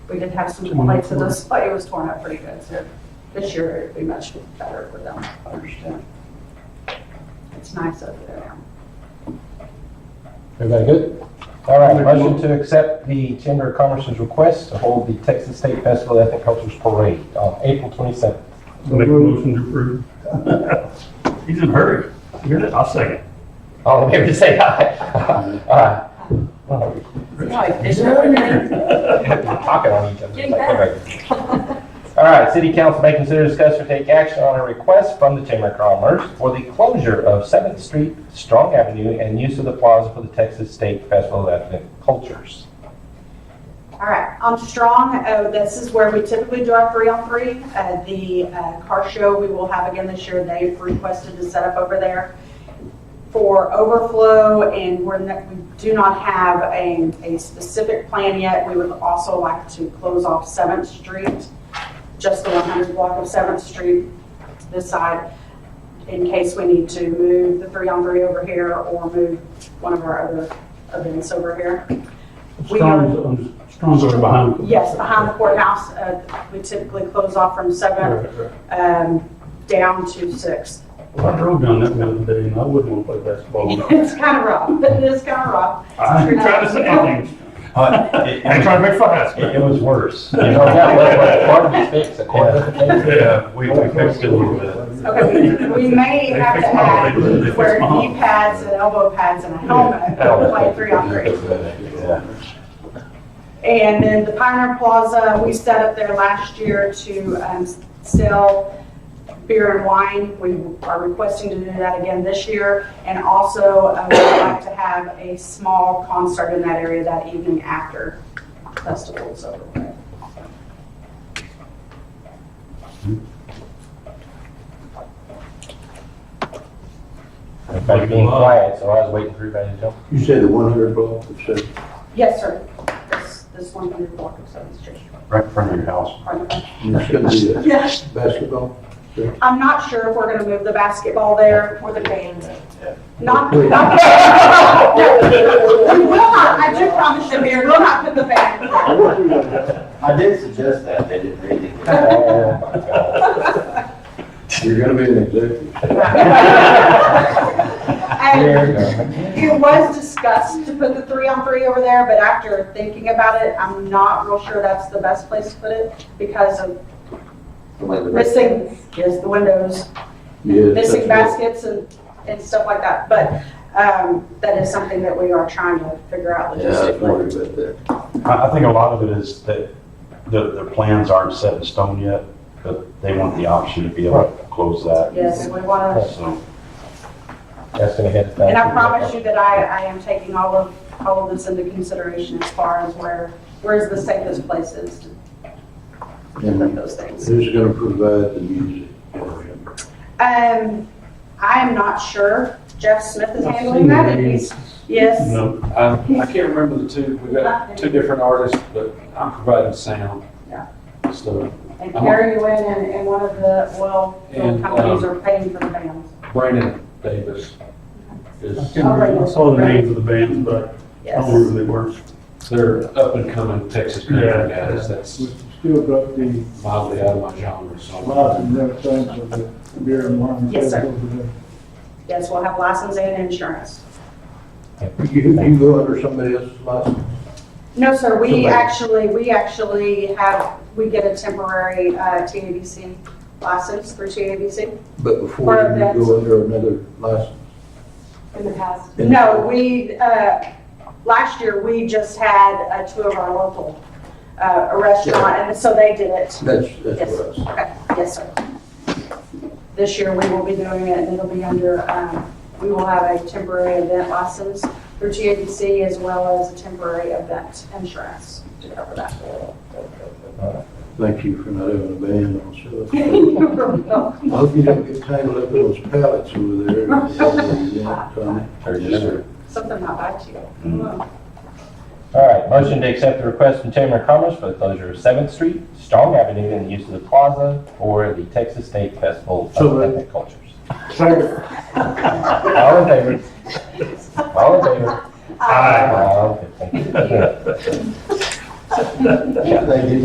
we did have some complaints of this, but it was torn up pretty good, so this year it'd be much better for them. I understand. It's nice over there. Everybody good? All right, motion to accept the Chamber of Commerce's request to hold the Texas State Festival of Ethnic Cultures Parade on April 27th. Make a motion to approve. He's in a hurry. You hear that? I'll second. All in favor, say aye. Aye. We're talking on each other. Getting better. All right, city council may consider, discuss, or take action on a request from the Chamber of Commerce for the closure of 7th Street, Strong Avenue, and use of the plaza for the Texas State Festival of Ethnic Cultures. All right, on Strong, uh, this is where we typically do our three-on-three. Uh, The uh, car show we will have again this year, they've requested to set up over there for overflow, and we're, not- we do not have a, a specific plan yet. We would also like to close off Seventh Street, just the 100 block of Seventh Street this side, in case we need to move the three-on-three over here or move one of our other events over here. We are- Strong's, um, Strong's over behind. Yes, behind the courthouse, uh, we typically close off from seven, Right, right. um, down to six. Well, I drove down that the other day and I wouldn't want to play basketball. It's kind of rough, it is kind of rough. Um, I ain't trying to say anything. I ain't trying to make fun of It, us. it was worse. You You know, know, that was what part of the fix, a clarification. yeah, we, we fixed it a little bit. Okay, we we may They have to fixed my- add they- they fixed wear my knee pads and elbow pads and a helmet, play three on three. Yeah. And then the Pioneer Plaza, we set up there last year to um, sell beer and wine. We are requesting to do that again this year. And also, uh, we'd like to have a small concert in that area that evening after festival's over. with. Everybody being quiet, so I was waiting for everybody to jump. You said the one hundred block of seven. Yes, sir. This, this 100 block of Seventh Street. Right in front of your house. Pardon me. And It's gonna be a Yes. basketball. I'm not sure if we're going to move the basketball there or the band. Not, Wait. not. We will not, I do promise you, Mayor, we'll not put the band. I did suggest that, they didn't read it. Oh, my God. You're gonna be an executive. There you And go. it was discussed to put the three on three over there, but after thinking about it, I'm not real sure that's the best place to put it because of missing, yes, the windows, Yes, missing that's baskets and, and stuff like that. But, um, that is something that we are trying to figure out what- Yeah, I was logistically. worried about that. I, I think a lot of it is that the, their plans aren't set in stone yet, but they want the option to be able to close that. Yes, and we want to So. That's gonna hit. And I promise you that I, I am taking all of, all of this into consideration as far as where, where's the safest places to put And those things. who's gonna provide the music? Um, I am not sure. Jeff Smith is I've handling seen that, it. and he's, yes. No, Um, I can't remember the two, we got two different artists, but I'm providing sound. Yeah. So And Gary Nguyen and, and one of the oil field And, companies are paying for the bands. Brandon Davis I is, can't remember. I saw the names of the bands, but I don't remember Yes. who they were. they're up and coming Texas Yeah. country guys, that's Still got the mildly out of my genre, so. lot and everything for the beer and wine. Yes, sir. over there. Yes, we'll have license and insurance. You, you go under somebody else's license? No, sir, we Somebody- actually, we actually have, we get a temporary, uh, TABC license through TABC. But Or before you that's- go under another license? In the past? In No, the- we, uh, last year, we just had uh, two of our local uh, a restaurant, and so they did it. That's, that's Yes. what I said. Okay, yes, sir. This year, we will be doing it, and it'll be under, um, we will have a temporary event license for GABC as well as a temporary event insurance to cover that. Thank you for not having a band on sale. You're I hope you don't get tangled up in those pallets over there. Yeah, Tommy. All Something not bite Mm. you. right, motion to accept the request from Chamber of Commerce for the closure of Seventh Street, Strong Avenue, and the use of the plaza for the Texas State Festival So of moved. Ethnic Cultures. Second. All in favor? All in favor? Aye. All in favor. Thank you.